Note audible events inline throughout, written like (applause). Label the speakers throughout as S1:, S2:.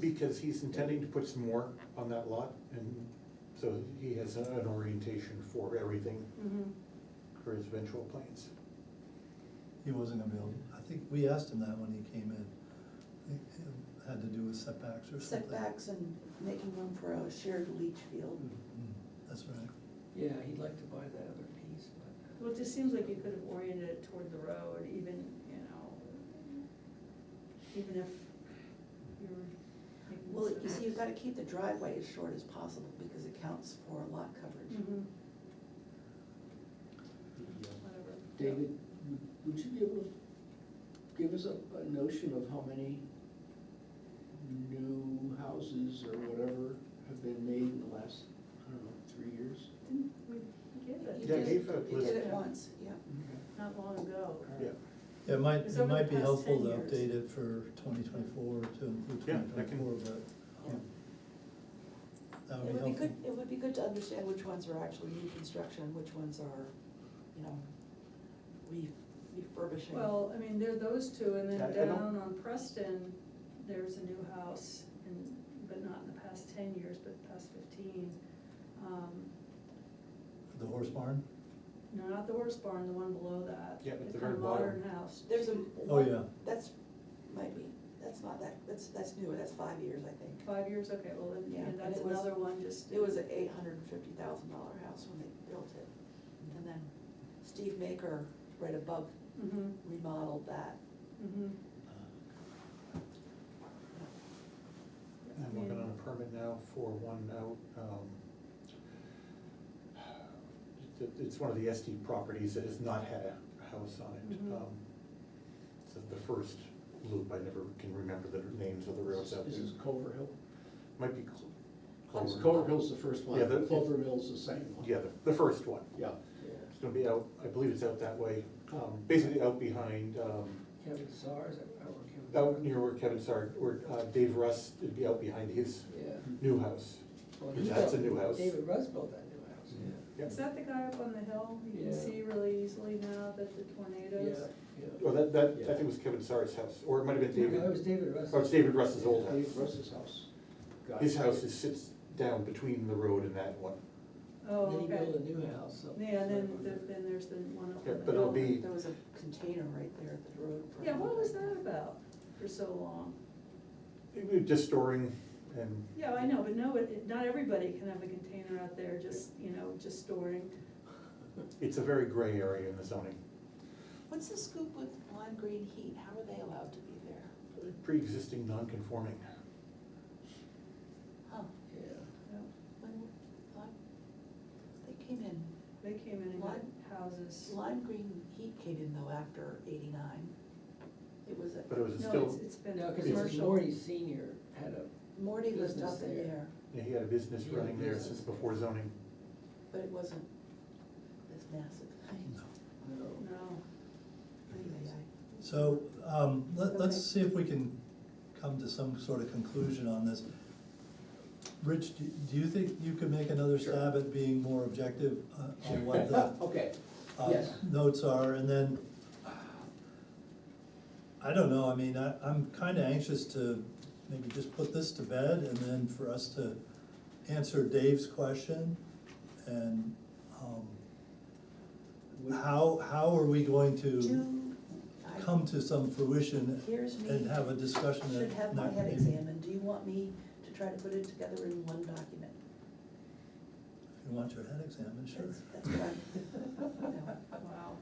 S1: Because he's intending to put some more on that lot, and so he has an orientation for everything
S2: Mhm.
S1: for his eventual plans.
S3: He wasn't gonna be able, I think, we asked him that when he came in. I think it had to do with setbacks or something.
S2: Setbacks and making room for a shared leach field.
S3: Mm, That's right.
S4: Yeah, he'd like to buy that other piece,
S5: uh,
S4: but.
S6: Well, it just seems like you could have oriented it toward the road, even, you know, even if you were making.
S2: Well, you
S6: this-
S2: see, you've gotta keep the driveway as short as possible because it counts for lot coverage.
S6: Mhm,
S4: Yeah.
S6: whatever.
S4: David, would- would you be able to give us a, a notion of how many new houses or whatever have been made in the last, I don't know, three years?
S6: Didn't we get
S2: You
S1: Yeah,
S2: did
S6: it
S1: Dave, uh,
S2: it, you
S1: was-
S2: did it once, yeah.
S6: not long ago?
S1: Yeah,
S3: Yeah, It might,
S6: It's
S3: it
S6: over the
S3: might be
S6: past
S3: helpful
S6: 10
S3: to
S6: years.
S3: update it for twenty twenty-four to include
S1: Yeah,
S3: twenty
S1: that can- Oh.
S3: twenty-four, but um, that would
S2: It would
S3: be
S2: be good,
S3: helpful.
S2: it would be good to understand which ones are actually new construction, and which ones are, you know, re- refurbishing.
S6: Well, I mean, there are those two, and
S1: I- I
S6: then
S1: don't-
S6: down on Preston, there's a new house, and, but not in the past ten years, but the past fifteen. Um,
S3: The horse barn?
S6: No, not the horse barn, the one below that.
S1: Yeah, but
S6: It's
S1: the very
S6: a
S1: bottom.
S6: Modern house.
S2: There's a.
S3: Oh, yeah.
S2: That's, might be, that's not that, that's, that's newer, that's five years, I think.
S6: Five years, okay, well, then,
S2: Yeah,
S6: yeah,
S2: and
S6: that's
S2: it was-
S6: another one, just.
S2: It was an eight hundred and fifty thousand dollar house when they built it. And then Steve Maker, right above,
S6: Mm-hmm,
S2: remodeled that.
S6: mm-hmm.
S1: I'm working on a permit now for one out, um, it- it's one of the SD properties that has not had a house on it.
S6: Mhm.
S1: Um, It's the first loop, I never can remember the names of the roads out
S4: This
S1: there.
S4: is Culver Hill.
S1: Might be. Clo-
S2: Culver.
S4: It's Culver Hill's the first one,
S1: Yeah, the-
S4: Culver Mill's the second one.
S1: Yeah, the, the first one.
S4: Yeah.
S1: It's gonna be out, I believe it's out that way, um, basically out behind, um,
S5: Kevin Czar, is that right, or Kevin?
S1: out near where Kevin Sarg, where uh, Dave Russ, it'd be out behind his
S5: Yeah.
S1: new house.
S5: Well, he
S1: That's a
S5: built-
S1: new house.
S5: Oh, David Russ built that new house.
S1: Yep.
S6: Is that the guy up on the hill? You can
S5: Yeah.
S6: see really easily now that the tornadoes.
S5: Yeah,
S1: Well, Oh, that, that, I think it was Kevin Sarg's house, or it might have been
S5: yeah. No, it was
S1: David,
S5: David Russ.
S1: or it's David Russ's old
S4: Dave
S1: house.
S4: Russ's house. Got
S1: His
S4: it.
S1: house is, sits down between the road and that one.
S6: Oh,
S5: Then he built a
S6: okay.
S5: new house. up-
S6: Yeah, and then, there- then there's the one up
S1: Yeah,
S6: on the
S1: but
S6: hill.
S1: it'll be-
S2: There was a container right there at the road. for-
S6: Yeah, what was that about for so long?
S1: It was Just storing and,
S6: Yeah, I know, but no, it, it- not everybody can have a container out there just, you know, just storing.
S1: (laughs) it's a very gray area in the zoning.
S2: What's the scoop with lime green heat? How are they allowed to be there?
S1: Pre-existing non-conforming.
S2: Huh,
S5: Yeah.
S6: Yeah,
S2: when, lime, they came in,
S6: They came in and got
S2: What?
S6: houses.
S2: lime green heat came in though after eighty-nine. It was, a-
S1: But it was
S6: No, it's,
S1: still,
S6: it's been
S5: No,
S1: it's
S5: because
S6: commercial.
S5: Morty Senior had a,
S2: Morty lived
S5: Business
S2: up in
S5: there.
S2: there,
S1: yeah, he had a business
S5: He had a
S1: running there
S5: business.
S1: since before zoning.
S2: but it wasn't this massive.
S5: no,
S6: No.
S2: Anyway, I-
S3: So, um, let, let's see
S2: Okay.
S3: if we can come to some sort of conclusion on this. Rich, do, do you think you could make another
S4: Sure.
S3: stab at being more objective uh, on
S1: (laughs)
S5: (laughs)
S3: what the
S4: Okay,
S3: uh,
S4: yes.
S6: (laughs)
S3: notes are, and then, I don't know, I mean, I, I'm kinda anxious to maybe just put this to bed, and then for us to answer Dave's question, and, um,
S4: We-
S3: how, how are we going to
S2: Do, I-
S3: come to some fruition
S2: here's me.
S3: and have a discussion that.
S2: Should have my
S3: not
S2: head
S3: maybe-
S2: examined, do you want me to try to put it together in one document?
S3: You want your head examined, sure.
S2: That's- That's what I'm, no.
S5: Uh,
S6: Wow.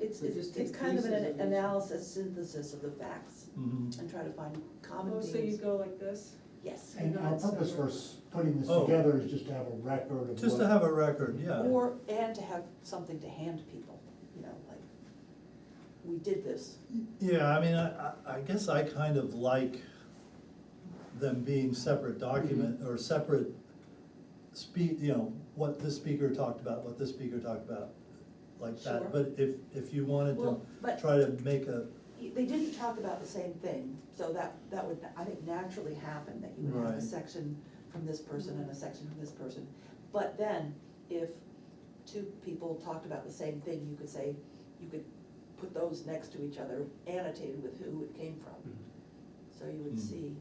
S2: It's,
S5: But just
S2: it's, it's
S5: take
S2: kind of an
S5: pieces of each.
S2: analysis, synthesis of the facts,
S3: Mhm.
S2: and try to find common
S6: Oh, so you
S2: themes,
S6: go like this?
S2: yes.
S7: And our purpose for s- putting this
S3: Oh.
S7: together is just to have a record of
S3: Just to
S7: what-
S3: have a record, yeah.
S2: Or, and to have something to hand people, you know, like, we did this,
S3: Yeah, I mean, I, I- I guess I kind of like them being separate document,
S2: Mm-hmm.
S3: or separate speak, you know, what this speaker talked about, what this speaker talked about, like
S2: Sure.
S3: that. But if, if you wanted to
S2: Well, but-
S3: try to make a,
S2: they didn't talk about the same thing, so that, that would, I think naturally happen, that you would have a
S3: Right.
S2: section from this person and a section from this person. But then, if two people talked about the same thing, you could say, you could put those next to each other, annotated with who it came from. So you would
S3: Hmm.
S2: see